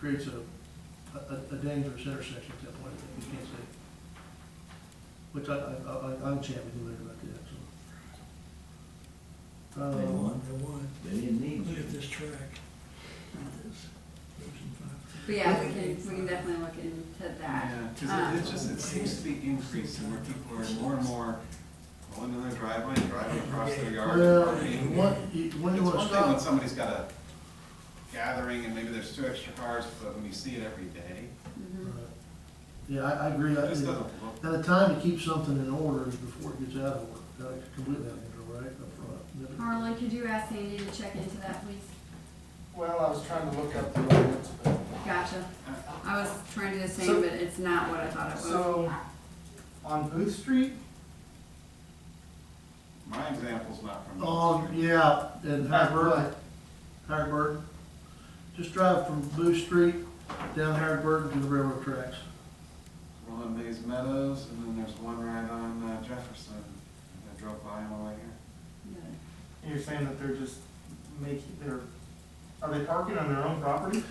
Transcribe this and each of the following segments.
creates a, a, a dangerous intersection at that point, you can't see. Which I, I, I, I'm chatting with you later about that, so. They Um, won, They want, they didn't need look you. at this track, look at this, Ocean Five. But yeah, we can, we can definitely look into that. Yeah, Um, because it just, it seems to be increasing where people are more and more pulling in their driveway, driving across their yard. and Well, parking. one, you- when It's you wanna one thing when stop, somebody's got a gathering and maybe there's two extra cars, but when you see it every day, mhm. Uh, yeah, I, I agree, it I, just doesn't now look. the time to keep something in order is before it gets out of order, that's completely out of control, right, up front. Harlan, could you ask Sandy to check into that, please? Well, I was trying to look up the ordinance, but, Gotcha. I was trying to do the same, So- but it's not what I thought it was. so, on Booth Street, My example's not from. Oh, yeah, and Harrisburg, Harrisburg, just drive from Booth Street down Harrisburg to the railroad tracks. Rolling Mays Meadows, and then there's one right on uh, Jefferson. I drove by on the way here. Yeah. you're saying that they're just making, they're, are they parking on their own property?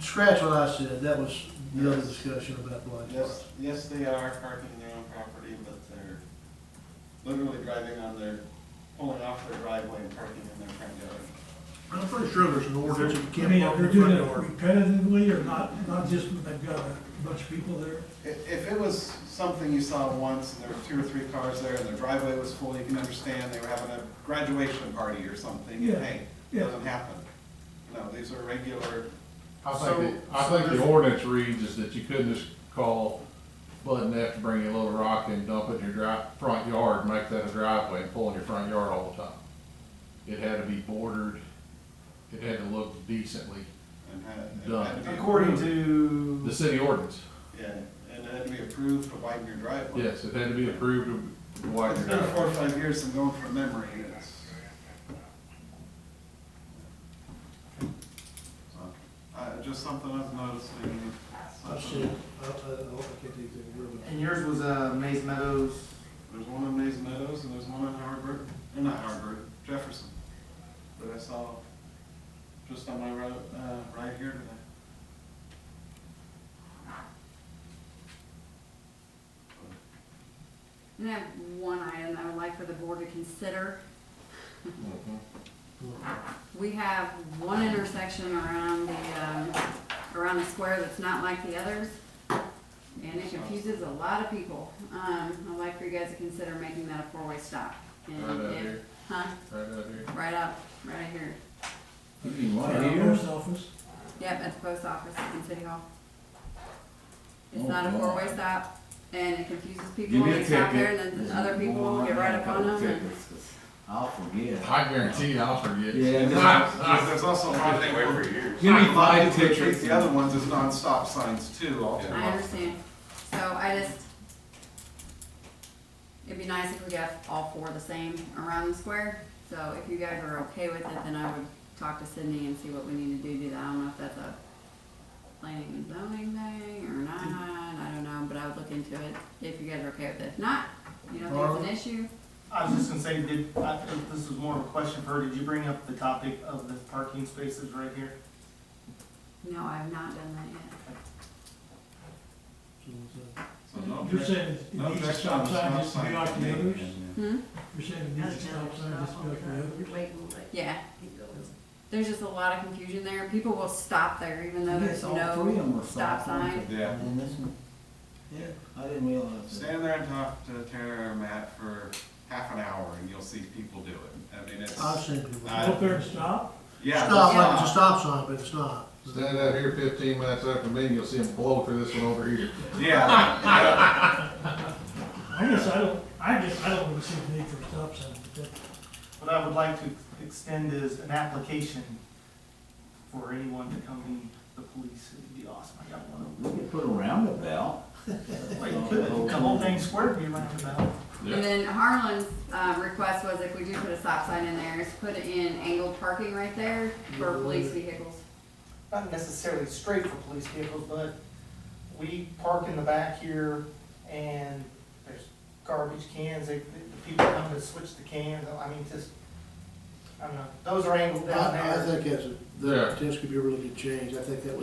Scratch what I said, that was the other Yes. discussion about blind Yes, spots. yes, they are parking their own property, but they're literally driving on their, pulling off their driveway and parking in their front yard. I'm pretty sure there's an ordinance, that you I mean, can't park they're in front doing it door. repetitively or not, not just when they've got a bunch of people there. If, if it was something you saw once, and there were two or three cars there, and their driveway was full, you can understand they were having a graduation party or something, Yeah, and hey, it yeah. doesn't happen. No, these are regular, I So- think, the- I think the ordinance reads is that you couldn't just call Bud and F to bring you a little rock and dump it in your dri front yard, make that a driveway and pull in your front yard all the time. It had to be bordered, it had to look decently, and had, it Done. had to be. According approved. the to, city ordinance, Yeah, and it had to be approved to widen your driveway. yes, it had to be approved to widen It's your been four driveway. or five years, I'm going from memory, it's. So, Uh, just something I've noticed, maybe. Oh, I've seen, it. I, I, I can't think of the word. and yours was, uh, Maze Meadows, There's one on Mays Meadows and there's one on Harbor, or not Harbor, Jefferson. That I saw just on my road, uh, right here today. And I have one item I would like for the board to consider. Mhm. We have one intersection around the, um, around the square that's not like the others, and it confuses a lot of people. Um, I'd like for you guys to consider making that a four-way stop. And Right out if- here, Huh? right out here. Right up, right here. You mean one At the here? post office. Yep, at the post office and city hall. Oh, It's not a God. four-way stop, and it confuses people, Oh, Give me a they stop there, ticket. and then other people will get right up on them, and I'll forget. I guarantee you, I'll forget. Yeah. Ah, Because There's also a lot of. They wait for years. Give me five tickets. The other ones is non-stop signs too, all day I long. understand, so I just, it'd be nice if we got all four the same around the square, so if you guys are okay with it, then I would talk to Sydney and see what we need to do, do that, I don't know if that's a planning and zoning thing or not, I don't know, but I would look into it, if you guys are okay with it, if not, you know, if there's an issue, I was just gonna say, did, I, this was more of a question for her, did you bring up the topic of the parking spaces right here? No, I've not done that yet. So it's, uh, So no You're objection, saying it no needs a objection on stop the stop sign, just to sign. be like the others? Hmm? You're saying it needs a stop sign, just to be like the others? Yeah. There's just a lot of confusion there. People will stop there even though there's Yes, all three of no them were stop sign. Yeah. And then this one, yeah, I didn't realize that. Stand there and talk to Tara or Matt for half an hour and you'll see people do it. I mean, it's, I've seen people. I- Stop, Up there and stop? Uh, yeah. like it's a Uh, stop sign, but it's not. Stand out here fifteen minutes after me, and you'll see them blow through this one over here. Yeah, yeah. I guess I don't, I guess I don't really see the need for a stop sign, but that- What I would like to extend is an application for anyone to come meet the police, it'd be awesome, I got one. We could put a roundabout. Well, you could, the whole thing squared would be roundabout. And then Harlan's um, request was if we do put a stop sign in there, is put in angled parking right there for police vehicles. not necessarily straight for police vehicles, but we park in the back here and there's garbage cans, they, the people come to switch the cans, I mean, just, I don't know, those are angled down there. I, I think that's, a- Yeah. that potentially could be a really good change. I think that